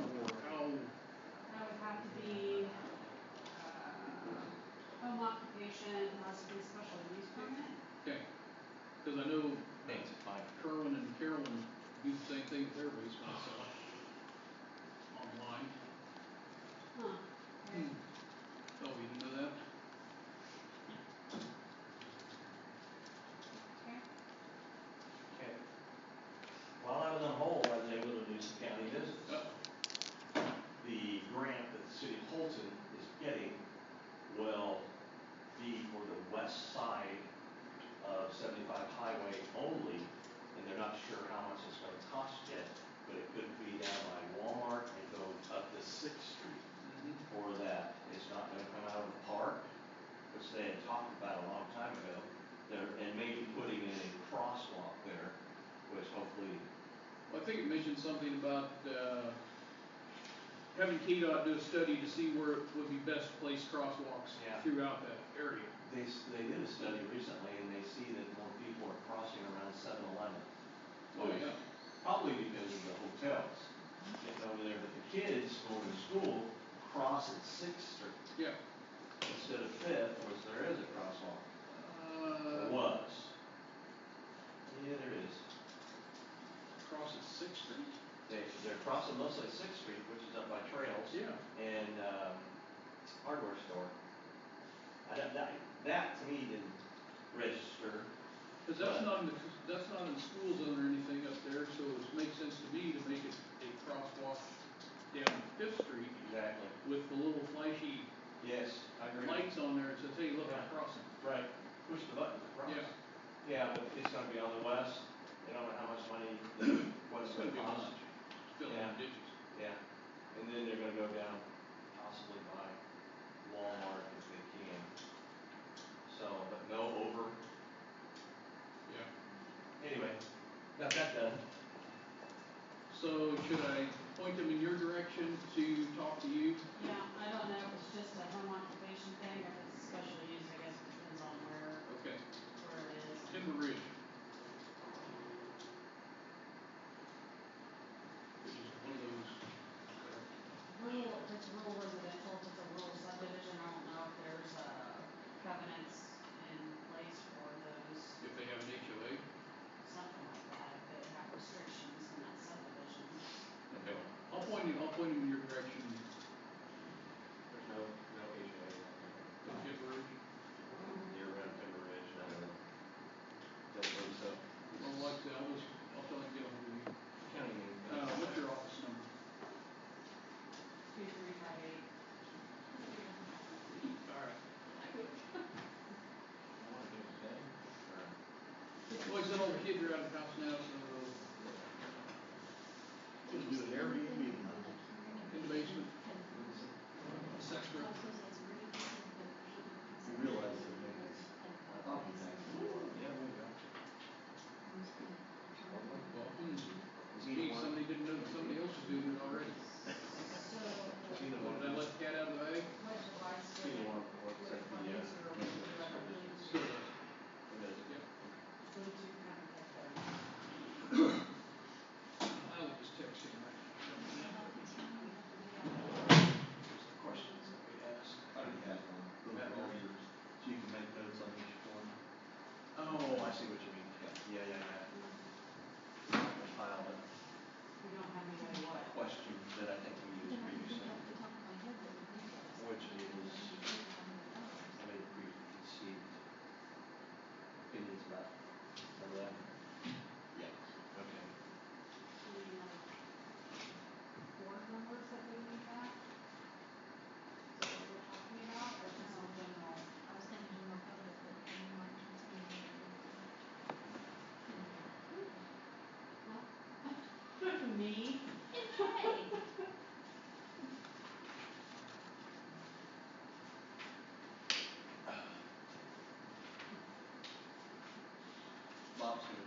uh, Hmm. think it mentioned something about, uh, having KDOT do a study to see where would be best placed crosswalks Yeah. throughout that area. They, s- they did a study recently and they see that more people are crossing around 7-Eleven. Oh, yeah. Probably because of the hotels getting over there, but the kids going to school cross at Sixth Street Yeah. instead of Fifth, which there is a crosswalk. Uh, Or was. Yeah, there is. across at Sixth Street? They, they're crossing mostly Sixth Street, which is up by trails. Yeah. and um, hardware store. I don't, that, that to me didn't register. Cause that's not in the, that's not in the school zone or anything up there, so it makes sense to me to make it a crosswalk down Fifth Street Exactly. with the little flashy Yes, I agree. lights on there, it says, hey, look, I'm Yeah. crossing. Right, push the button to cross. Yeah. Yeah, but it's gonna be on the west, they don't know how much money, what it's It's gonna gonna be cost. much. Fill in Yeah. the ditches. Yeah, and then they're gonna go down possibly by Walmart if they can. So, but no over, Yeah. anyway, got that done. So should I point them in your direction to talk to you? Yeah, I don't know if it's just a home occupation thing or if it's special use, I guess it depends on where, Okay, where it is. Timber Ridge. Which is one of those, uh, Rural, if it's rural residential, if it's a rural subdivision, I don't know if there's, uh, covenants in place for those, if they have an HOA, something like that, if they have restrictions in that subdivision. okay. I'll point you, I'll point them in your direction, There's no, no HOA. to Timber Ridge. Near around Timber Ridge, I don't know. Don't believe so. Well, like, I said, I'll just, I'll tell them to get over you. County name. Uh, what's your office number? Two, three, five, eight. All right. I wanna do it today. Or- Well, he's an old kid, you're out of the house now, so uh, Just do it every evening. in the basement, sex room. You realize that maybe it's- I thought it was actually- Yeah, we go. Well, hmm, Is he gee, the one? somebody didn't know, that somebody else was doing it already. So, She the Well, one. did I let the cat out of the bag? what advice would She the you? one who works at the, uh, Still does. who does it. Would you kind of get there? I was just texting her. Just the questions that we ask. I already had one. Look at all yours. So you can make notes on each one. Oh, I see what you mean. Yeah, yeah, yeah. The pile of We don't have anybody what? questions that I think we used previously, which is, I mean, preconceived opinions about, remember that? Yeah. Okay. Any, like, board members that we need back? Is that what we're talking about, or just on general? Me? Bob's gonna